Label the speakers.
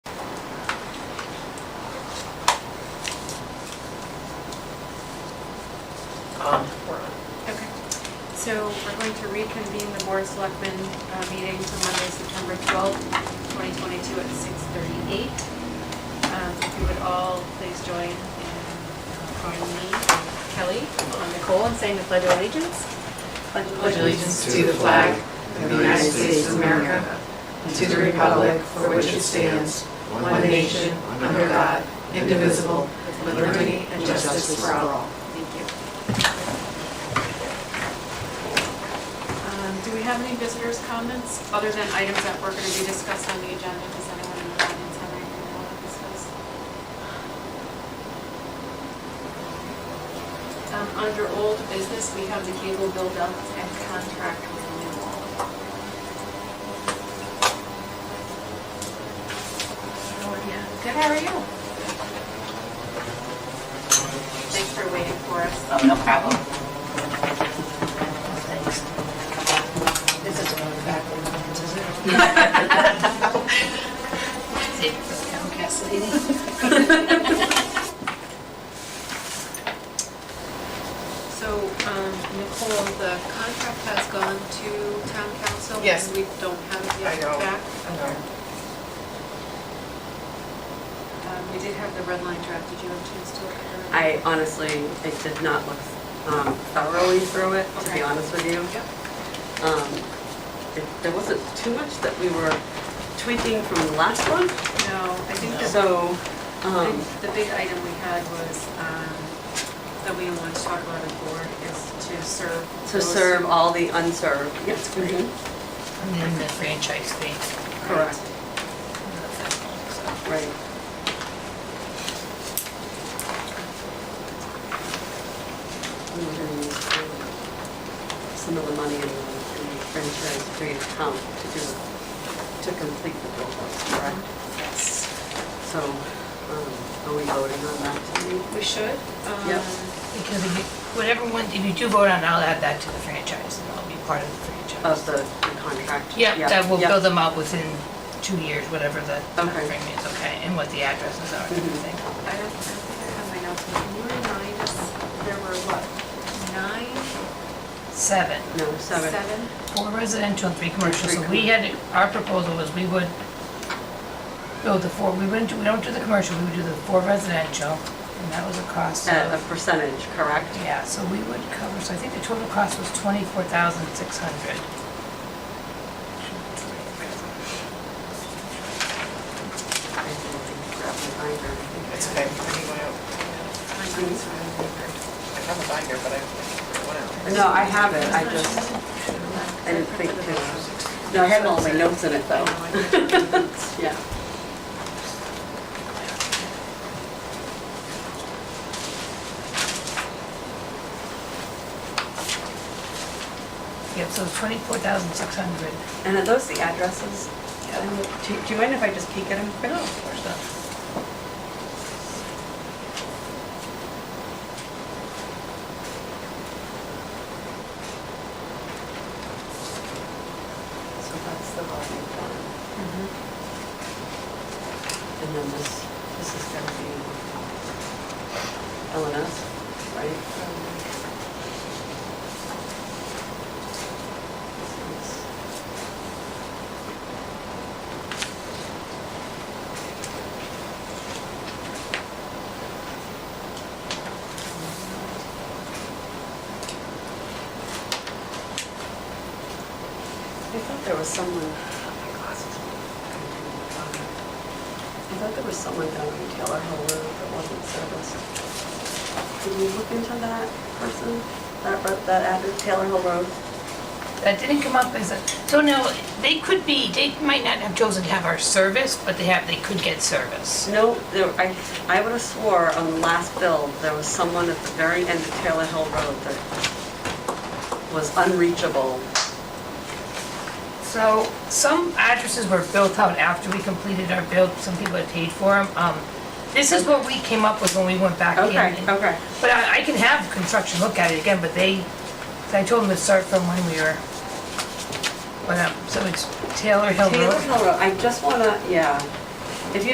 Speaker 1: Um,
Speaker 2: going to reconvene the Board of Selectmen uh, meeting for Monday, September 12th, 2022 at 6:38. Um, If you would all please join in uh, calling me, Kelly, on Nicole, and saying the Pledge of Allegiance.
Speaker 3: pledge allegiance to the flag of the United States of America and to the republic for which it stands, one nation, under God, indivisible, with liberty and justice for all.
Speaker 2: Thank you. Um, Do we have any visitors' comments, other than items that were going to be discussed on the agenda? Does anyone in the audience have anything they want to discuss? Um, Under old business, we have the cable build-up and contract renewal. Oh, yeah. Good, how are you? Thanks for waiting for us.
Speaker 1: Oh, no problem.
Speaker 3: This is one of the back ones, is it?
Speaker 2: So, um, Nicole, the contract has gone to town council?
Speaker 1: Yes.
Speaker 2: And we don't have it
Speaker 1: I
Speaker 2: yet
Speaker 1: know.
Speaker 2: back? Um, We did have the red line draft, did you have a chance to look at it?
Speaker 4: I honestly, I did not look um, thoroughly through it, to
Speaker 2: Okay.
Speaker 4: be honest with you.
Speaker 2: Yep.
Speaker 4: Um, it- There wasn't too much that we were tweaking from the last one,
Speaker 2: No, I think the,
Speaker 4: so, um,
Speaker 2: the big item we had was, um, that we want to talk about the board is to serve.
Speaker 4: to
Speaker 2: those-
Speaker 4: serve all the unserved. Mm-hmm. Yes, great.
Speaker 5: And then the franchise fee.
Speaker 4: Correct, right. And we're gonna use, um, Some of the money in the in the franchise free account to do, to complete the build-up, correct?
Speaker 2: Yes.
Speaker 4: So, um, are we voting on that tonight?
Speaker 2: We should. um,
Speaker 4: Yep.
Speaker 5: Because if you, whatever one, if you do vote on, it, I'll add that to the franchise, and that'll be part of the
Speaker 4: Of
Speaker 5: franchise.
Speaker 4: the the contract?
Speaker 5: Yeah, that will
Speaker 4: Oh, yeah.
Speaker 5: build them up within two years, whatever the
Speaker 4: Okay. Mm-hmm.
Speaker 5: timeframe is, okay, and what the addresses are and everything.
Speaker 2: I don't, I don't think I have my notes, can you remind us, there were what, nine?
Speaker 5: Seven,
Speaker 4: No, seven.
Speaker 2: Seven?
Speaker 5: four residential and three commercial,
Speaker 4: Three
Speaker 5: so we had, our proposal was we would build the four, we wouldn't, do- we don't do the commercial, we would do the four residential, and that was a cost of.
Speaker 4: At a percentage, correct?
Speaker 5: Yeah, so we would cover, so I think the total cost was twenty-four thousand six hundred.
Speaker 4: I didn't grab my binder. I think
Speaker 1: It's
Speaker 4: I
Speaker 1: okay, I need one out. I
Speaker 2: My notes were-
Speaker 1: have a binder, but I have one out.
Speaker 4: had- No, I have it, I just, I didn't think to, no, I had all my notes in it though. Yeah.
Speaker 5: Yep, so it's twenty-four thousand six hundred.
Speaker 4: And are those the addresses? And Do do you mind if I just peek at them quick?
Speaker 5: Where's that?
Speaker 4: So that's the volume one. And then this, this is gonna be LNS, right? I thought there was someone, oh my glasses. I thought there was someone down in Taylor Hill Road that wasn't serviced. Did you look into that person, that, ro- that address, Taylor Hill Road?
Speaker 5: That didn't come up as a, so no, they could be, they might not have chosen to have our service, but they have, they could get service.
Speaker 4: No, there, I, I would have swore on the last bill, there was someone at the very end of Taylor Hill Road that was unreachable.
Speaker 5: So some addresses were built out after we completed our build, some people had paid for them. Um, this is what we came up with when we went back in. and-
Speaker 4: okay.
Speaker 5: But I, I can have construction look at it again, but they, I told them to start from when we were, when, um, so it's Taylor Hill
Speaker 4: Taylor
Speaker 5: Road.
Speaker 4: Hill Road, I just wanna, yeah,